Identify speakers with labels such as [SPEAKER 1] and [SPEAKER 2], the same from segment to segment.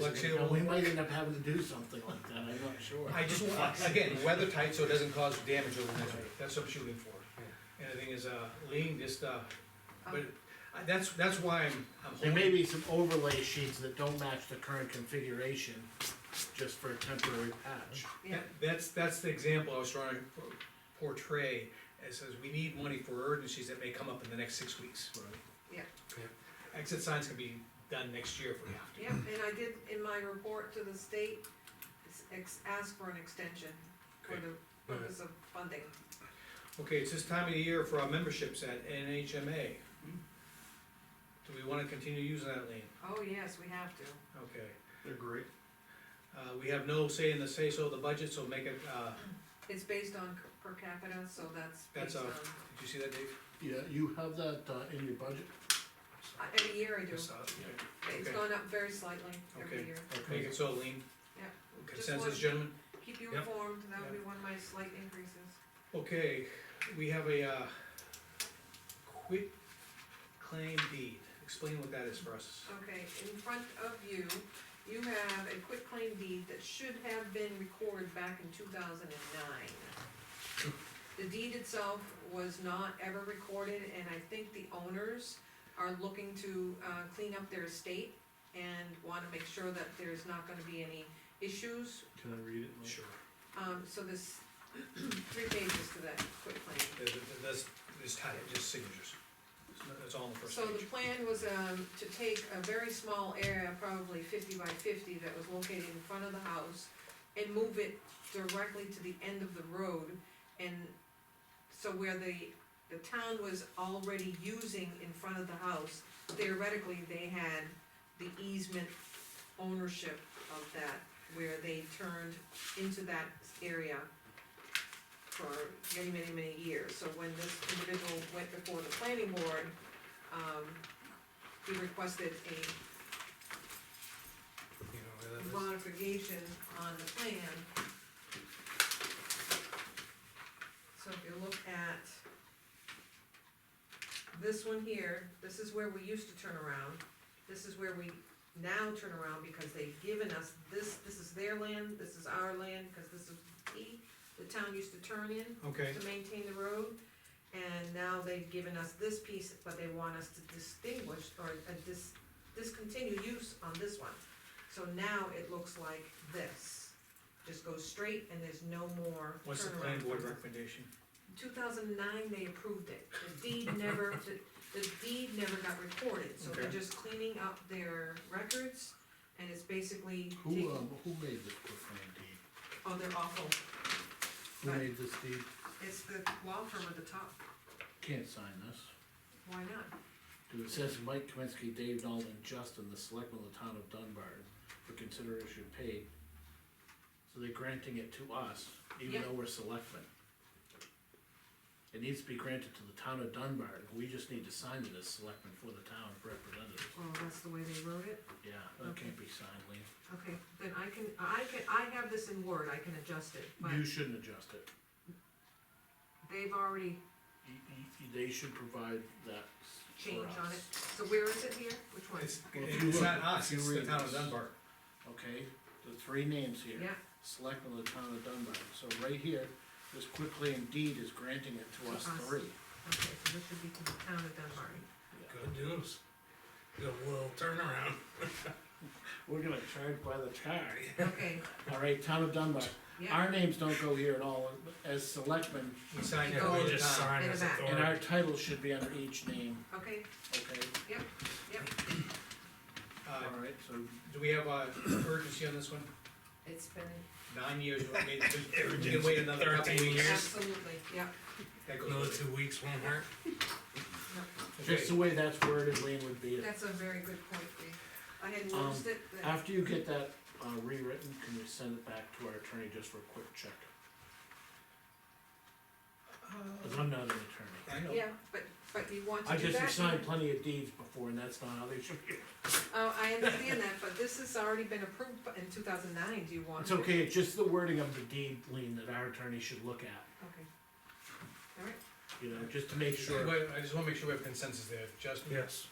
[SPEAKER 1] But you-
[SPEAKER 2] You know, we might end up having to do something like that, I'm not sure.
[SPEAKER 1] I just, want- again, weather tight so it doesn't cause damage over the next week, that's what I'm shooting for. And the thing is, uh, lean just, uh, but I- that's, that's why I'm, I'm
[SPEAKER 2] There may
[SPEAKER 1] holding.
[SPEAKER 2] be some overlay sheets that don't match the current configuration, just for a temporary patch.
[SPEAKER 3] Yeah,
[SPEAKER 1] That's, that's the example I was trying to portray, it says we need money for urgencies that may come up in the next six weeks.
[SPEAKER 3] Yeah.
[SPEAKER 1] Exit signs can be done next year if we have to.
[SPEAKER 3] yeah, and I did, in my report to the state, s- ex- ask for an extension for
[SPEAKER 1] Okay.
[SPEAKER 3] the purpose of funding.
[SPEAKER 1] Okay, it's this time of the year for our memberships at NHMA. Do we wanna continue using that lean?
[SPEAKER 3] Oh, yes, we have to.
[SPEAKER 1] Okay.
[SPEAKER 2] They're great.
[SPEAKER 1] Uh, we have no say in the say-so of the budget, so make it, uh,
[SPEAKER 3] It's based on c- per capita, so that's
[SPEAKER 1] That's
[SPEAKER 3] based on,
[SPEAKER 1] a- did you see that, Dave?
[SPEAKER 2] Yeah, you have that, uh, in your budget?
[SPEAKER 3] I- every year I do.
[SPEAKER 1] Yes, uh, okay.
[SPEAKER 3] It's
[SPEAKER 1] okay.
[SPEAKER 3] gone up very slightly every
[SPEAKER 1] Okay.
[SPEAKER 3] year.
[SPEAKER 1] Make it so lean.
[SPEAKER 3] Yeah.
[SPEAKER 1] Consensus,
[SPEAKER 3] one.
[SPEAKER 1] gentlemen?
[SPEAKER 3] Keep you
[SPEAKER 1] Yep.
[SPEAKER 3] informed, that would be one of my slight increases.
[SPEAKER 1] Okay, we have a, uh, quit claim deed. Explain what that is for us.
[SPEAKER 3] Okay, in front of you, you have a quitclaim deed that should have been recorded back in two thousand and nine. The deed itself was not ever recorded, and I think the owners are looking to, uh, clean up their estate and wanna make sure that there's not gonna be any issues,
[SPEAKER 2] Can I read it? Mike?
[SPEAKER 3] um, so there's three pages to that quitclaim.
[SPEAKER 1] There's, there's, there's title, just signatures. That's all in the first
[SPEAKER 3] So the
[SPEAKER 1] page.
[SPEAKER 3] plan was, um, to take a very small area, probably fifty by fifty, that was located in front of the house, and move it directly to the end of the road, and so where the, the town was already using in front of the house, theoretically, they had the easement ownership of that, where they turned into that area for many, many, many years, so when this individual went before the planning board, um, he requested a
[SPEAKER 1] You know where that is?
[SPEAKER 3] modification on the plan. So if you look at this one here, this is where we used to turn around, this is where we now turn around because they've given us this, this is their land, this is our land, cause this is P, the town used to turn in
[SPEAKER 1] Okay,
[SPEAKER 3] to maintain the road. And now they've given us this piece, but they want us to distinguish or uh, dis- discontinue use on this one. So now it looks like this, just goes straight and there's no more
[SPEAKER 1] what's the planning
[SPEAKER 3] turnaround.
[SPEAKER 1] board recommendation?
[SPEAKER 3] Two thousand nine, they approved it, the deed never, the, the deed never got recorded, so they're
[SPEAKER 1] Okay.
[SPEAKER 3] just cleaning up their records. And it's basically taking,
[SPEAKER 2] Who, um, who made this quick claim deed?
[SPEAKER 3] oh, they're awful,
[SPEAKER 2] Who
[SPEAKER 3] Right.
[SPEAKER 2] made this deed?
[SPEAKER 3] it's the law firm at the top,
[SPEAKER 2] Can't sign this.
[SPEAKER 3] why not?
[SPEAKER 2] Cause it says Mike Kaminsky, Dave Nolan, and Justin, the selectmen of the town of Dunbar, for consideration paid. So they're granting it to us, even
[SPEAKER 3] Yeah.
[SPEAKER 2] though we're selectmen. It needs to be granted to the town of Dunbar, we just need to sign it as selectmen for the town representative.
[SPEAKER 3] Well, that's the way they wrote it.
[SPEAKER 2] Yeah, that can't be signed, Lee.
[SPEAKER 3] Okay, then I can, I can, I have this in Word, I can adjust it, but
[SPEAKER 2] You shouldn't adjust it.
[SPEAKER 3] they've already
[SPEAKER 2] You- you- They should provide that for
[SPEAKER 3] changed on it.
[SPEAKER 2] us.
[SPEAKER 3] So where is it here? Which one?
[SPEAKER 1] It's,
[SPEAKER 2] Well, if you
[SPEAKER 1] it's not
[SPEAKER 2] look-
[SPEAKER 1] us,
[SPEAKER 2] if you
[SPEAKER 1] it's the
[SPEAKER 2] read
[SPEAKER 1] town of
[SPEAKER 2] this.
[SPEAKER 1] Dunbar.
[SPEAKER 2] Okay, the three names here.
[SPEAKER 3] Yeah,
[SPEAKER 2] selectmen of the town of Dunbar. So right here, this quickly indeed is granting it to us
[SPEAKER 3] To us.
[SPEAKER 2] three.
[SPEAKER 3] okay, so this should be to the town of Dunbar.
[SPEAKER 4] Good news. Did a little turnaround.
[SPEAKER 2] We're gonna charge by the tar.
[SPEAKER 3] Okay,
[SPEAKER 2] All right, town of Dunbar.
[SPEAKER 3] yeah,
[SPEAKER 2] Our names don't go here at all as selectmen,
[SPEAKER 1] We sign that
[SPEAKER 3] Oh,
[SPEAKER 1] all
[SPEAKER 4] We
[SPEAKER 1] the
[SPEAKER 4] just
[SPEAKER 1] time.
[SPEAKER 4] signed
[SPEAKER 3] In
[SPEAKER 4] as
[SPEAKER 3] the back.
[SPEAKER 2] and our
[SPEAKER 4] authority.
[SPEAKER 2] titles should be under each name,
[SPEAKER 3] okay,
[SPEAKER 2] okay?
[SPEAKER 1] Uh,
[SPEAKER 2] All right, so
[SPEAKER 1] do we have, uh, urgency on this one?
[SPEAKER 3] it's been,
[SPEAKER 1] Nine years, we made, we can wait another couple
[SPEAKER 4] Urgency,
[SPEAKER 1] weeks.
[SPEAKER 4] Here's-
[SPEAKER 3] absolutely, yeah,
[SPEAKER 1] That goes
[SPEAKER 4] Another
[SPEAKER 1] with it.
[SPEAKER 4] two weeks won't hurt.
[SPEAKER 2] just the
[SPEAKER 1] Okay,
[SPEAKER 2] way that's worded, Lean would be,
[SPEAKER 3] that's a very good point, Lee. I hadn't
[SPEAKER 2] Um,
[SPEAKER 3] noticed it, but,
[SPEAKER 2] after you get that uh, rewritten, can you send it back to our attorney just for a quick check?
[SPEAKER 3] Uh,
[SPEAKER 2] Cause I'm not an attorney.
[SPEAKER 1] I know.
[SPEAKER 3] yeah, but, but you want to
[SPEAKER 2] I
[SPEAKER 3] do that?
[SPEAKER 2] just signed plenty of deeds before and that's not how they should be.
[SPEAKER 3] Oh, I understand that, but this has already been approved in two thousand nine, do you want?
[SPEAKER 2] It's okay, it's just the wording of the deed lien that our attorney should look at,
[SPEAKER 3] Okay. All right,
[SPEAKER 2] you know, just to make
[SPEAKER 1] Wait,
[SPEAKER 2] sure.
[SPEAKER 1] I just wanna make sure we have consensus there, Justin?
[SPEAKER 4] Yes.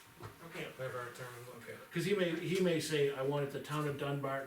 [SPEAKER 3] okay.
[SPEAKER 4] whatever our turn is.
[SPEAKER 1] Okay.
[SPEAKER 2] Cause he may, he may say, I want it the town of Dunbarton